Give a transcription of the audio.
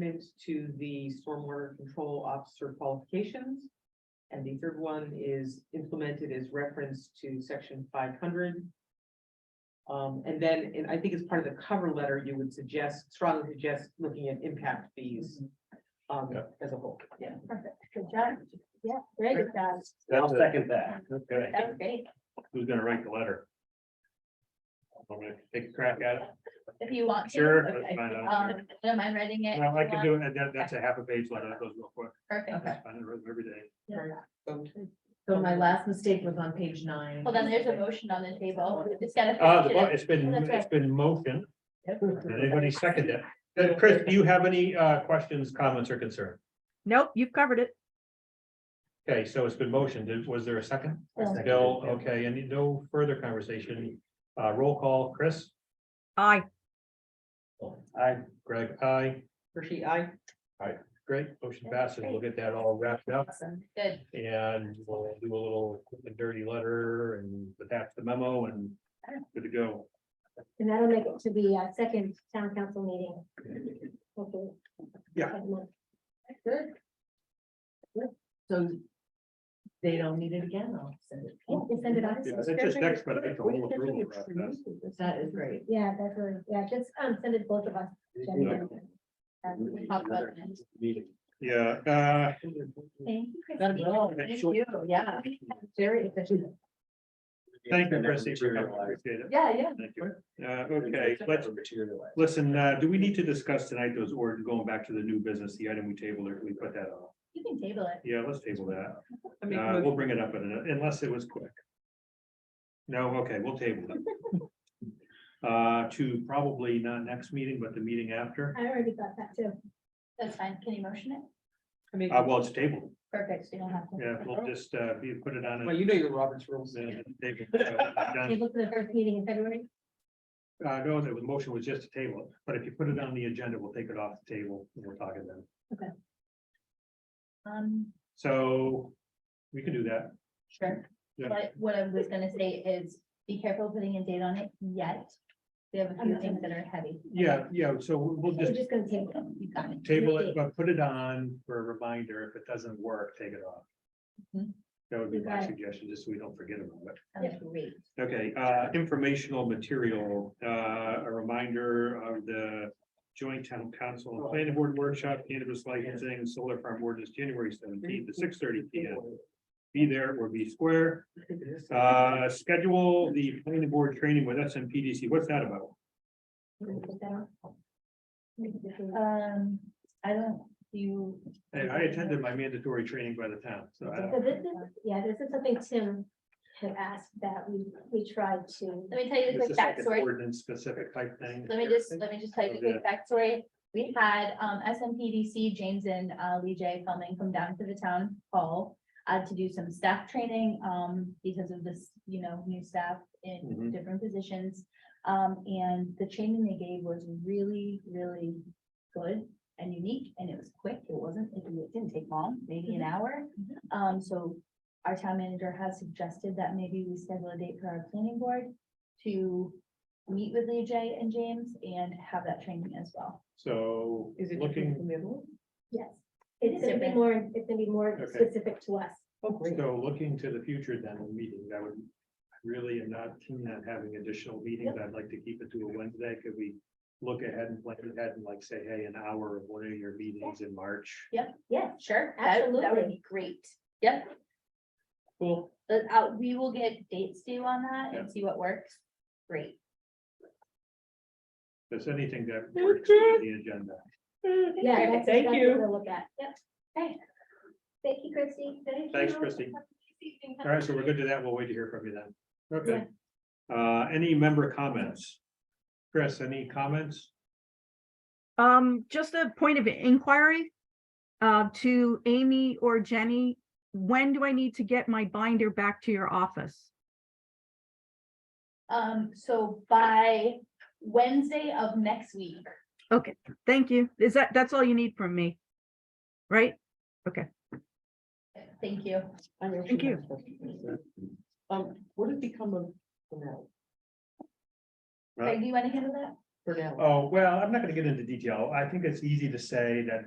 amendment to the stormwater control officer qualifications. And the third one is implemented as reference to section five hundred. Um, and then, and I think as part of the cover letter, you would suggest, strongly suggest looking at impact fees Mm-hmm. um, Yeah. as a whole. Yeah, perfect. Good job. Yeah, very good job. I'll That's it. second that. Okay, That was great. who's gonna write the letter? I'm gonna take a crack at it. If you want to. Sure, Okay. that's fine, I don't Um, don't mind writing it. Well, I if you can want. do it. That, that's a half a page letter. That goes real quick. Perfect. I find it every day. So my last mistake was on page nine. Well, then there's a motion on the table. We Just gotta. Uh, the, finish mo- it. it's been, That's right. it's been motion. Yep. Did Anybody second it? Uh, Chris, do you have any, uh, questions, comments or concern? Nope, you've covered it. Okay, so it's been motioned. Did- Was there a second? I seconded Bill, okay, and no further conversation. Uh, roll call, Chris? Aye. Aye. Greg, aye. Hershey, I. Great, motion passes. We'll get that all wrapped up. Good. And we'll do a little quick and dirty letter and attach the memo and good to go. And that'll make it to the uh, second town council meeting. hopefully. Yeah. Next month. Good. So they don't need it again, I'll send it. Yeah, just send it out. Yeah, That's just next, but it's a whole approval. process. That is great. Yeah, that's really, yeah, just um, send it both of us. Jen and I. Um, Talk about it next. Yeah, uh, Thank you, Christine. That'd be all. Thank you, yeah. Very efficient. thank you, Chrissy, for coming. Appreciate it. Yeah, yeah. Thank you. Uh, okay, let's, Materialize. listen, uh, do we need to discuss tonight those or going back to the new business, the item we tabled, or can we put that on? You can table it. Yeah, let's table that. I make a Uh, we'll motion- bring it up in a- unless it was quick. No, okay, we'll table it. Uh, to probably not next meeting, but the meeting after. I already got that too. That's fine. Can you motion it? I make- Uh, well, it's tabled. Perfect. You don't have to. Yeah, Oh. we'll just, uh, be- put it on. Well, a- you know your Roberts rules. then table it. Uh, done. Table for the first meeting in February. Uh, no, the motion was just to table it, but if you put it on the agenda, we'll take it off the table and we'll talk it then. Um, So we can do that. sure. Yeah. But what I was gonna say is be careful putting a date on it yet. We have a few things that are heavy. Yeah, yeah, so we'll We're just just gonna table it. You got it. table it, but put it on for a reminder. If it doesn't work, take it off. Mm-hmm. Mhm. That would be You my got it. suggestion, just so we don't forget about it. Sounds great. Okay, uh, informational material, uh, a reminder of the joint town council and planning board workshop, cannabis licensing, solar farm ordinance, January seventeenth to six thirty P M. Be there or be square, uh, schedule the planning board training with S M P D C. What's that about? We're gonna put that on. Uh, Um, I don't, do you? Hey, I attended my mandatory training by the town, so I don't. So this is, yeah, this is something Tim had asked that we, we tried to. Let me tell you the It's quick just like an backstory. ordinance specific type thing. Let me just, let me just tell you the quick backstory. We had um SMPDC, James and uh Lee J coming from down to the town hall. Uh, to do some staff training, um, because of this, you know, new staff in Mhm. different positions. Um, and the training they gave was really, really good and unique and it was quick. It wasn't, it didn't take long, maybe an hour. Um, so our town manager has suggested that maybe we schedule a date for our planning board to meet with Lee J and James and have that training as well. So Is it different looking, from the other one? Yes, it's gonna be more, it's gonna be more Okay. specific to us. Oh, great. so looking to the future then, a meeting, I would really am not keen on having additional meetings. I'd like to keep it to a Wednesday. Could we look ahead and plan ahead and like say, hey, an hour of one of your meetings in March? Yeah, Sure. That would Absolutely. be great. Yep, Cool. but uh, we will get dates due on that Yeah. and see what works. Great. There's anything that works with the agenda. yeah. that's- Thank that's what you. We'll look at, yep. Okay. Thank you, Christy. Thanks, Christy. All right, so we're good to that. We'll wait to hear from you then. Okay. Uh, any member comments? Chris, any comments? Um, just a point of inquiry. Uh, to Amy or Jenny, when do I need to get my binder back to your office? Um, so by Wednesday of next week, Thank you. Is that, that's all you need from me? Right? thank you. I actually Thank have a question. Um, what has become of, of that? Uh, Greg, do you want to handle that? for now. Oh, well, I'm not gonna get into detail. I think it's easy to say that